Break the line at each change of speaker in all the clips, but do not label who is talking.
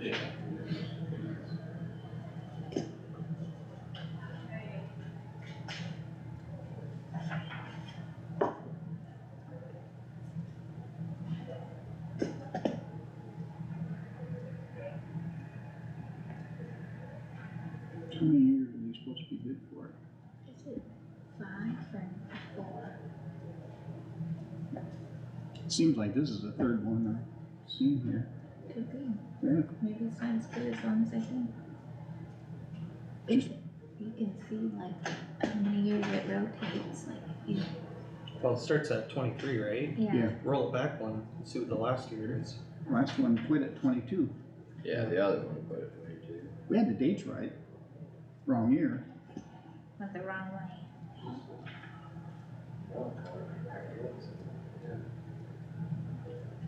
Yeah.
How many years are you supposed to be good for?
Is it five and four?
Seems like this is the third one I've seen here.
Could be.
Yeah,
Maybe it's not as good as long as I can. If you can see like how many years it rotates, like if you,
Well, it starts at twenty-three, right?
yeah,
Yeah.
Roll it back one, and see what the last year is.
last one quit at twenty-two.
Yeah, the other one put it way too.
We had the dates right. Wrong year.
went the wrong way.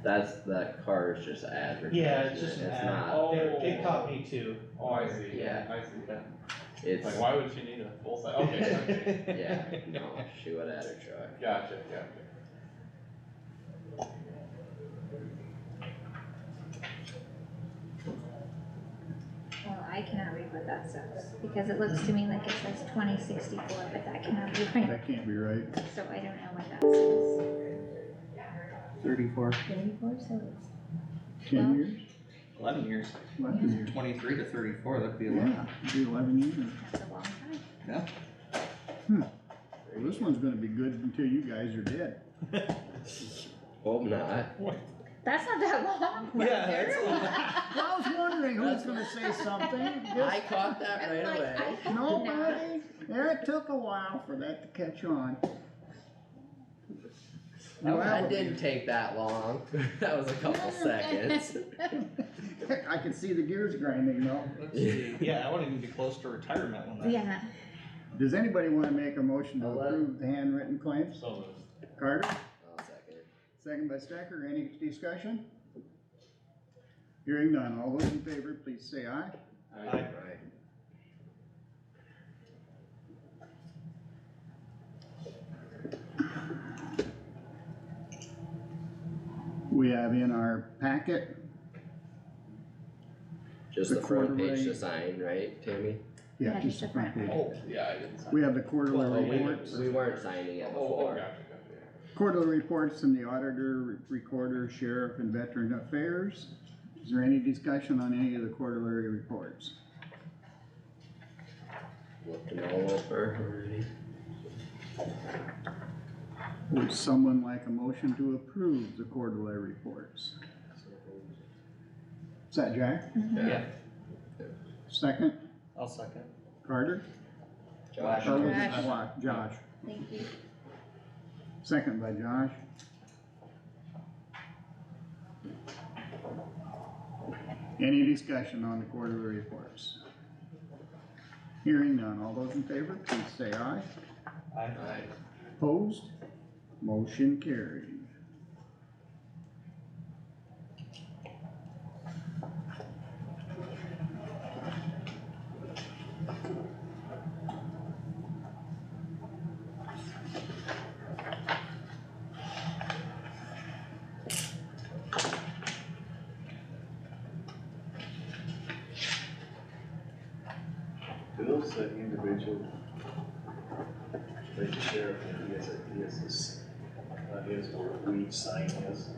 That's, that car is just advertising.
Yeah, it's just an
it, it's
ad,
not-
Oh.
it, it caught me too.
Oh, I see,
Yeah.
yeah, I see, yeah.
It's,
Like, why would she need a full size, okay, okay,
yeah, no, she would add her truck.
gotcha, gotcha.
Well, I cannot read what that says, because it looks to me like it says twenty sixty-four, but that cannot be right,
That can't be right.
so I don't know what that says.
Thirty-four.
Thirty-four, so it's
Ten
Well-
years?
Eleven years.
Eleven years.
Twenty-three to thirty-four, that'd be
Yeah, it'd be eleven years.
that's a long time.
Well, this one's gonna be good until you guys are dead.
Hope not.
That's not that long, right
Yeah,
there.
that's
I was wondering who's gonna say something.
I caught that
I'm
right
like, I
away.
hope not.
Nobody, yeah, it took a while for that to catch on.
That,
Well,
that didn't take that long. That was a couple seconds.
I can see the gears grinding though.
Let's see. Yeah, I wouldn't even be close to retirement when that.
Yeah,
Does anybody wanna make a motion to
Hello?
approve the handwritten claims?
So,
Carter,
I'll second.
second by Stecker, any discussion? Hearing none, all those in favor, please say aye.
I,
Right.
We have in our packet,
Just
The
the front
quarterly-
page design, right, Tammy?
yeah, just the front page.
oh, yeah, I didn't. sign.
We have the
Well,
quarterly
we,
reports,
we weren't signing
Oh,
it
oh,
before.
gotcha, gotcha,
quarterly reports from the auditor, recorder, sheriff, and veteran affairs. Is there any discussion on any of the quarterly reports?
Looked them all over already.
Would someone like a motion to approve the quarterly reports? Is that Jack?
Mm-hmm.
Yeah,
Second,
I'll second.
Carter?
Josh,
Or was it
Josh.
Wa- Josh,
thank you.
second by Josh. Any discussion on the quarterly reports? Hearing none, all those in favor, please say aye.
I,
Aye.
Opposed? Motion carried.
Do those uh, individual, like the sheriff, and he has a, he has this, uh, his, where we sign his,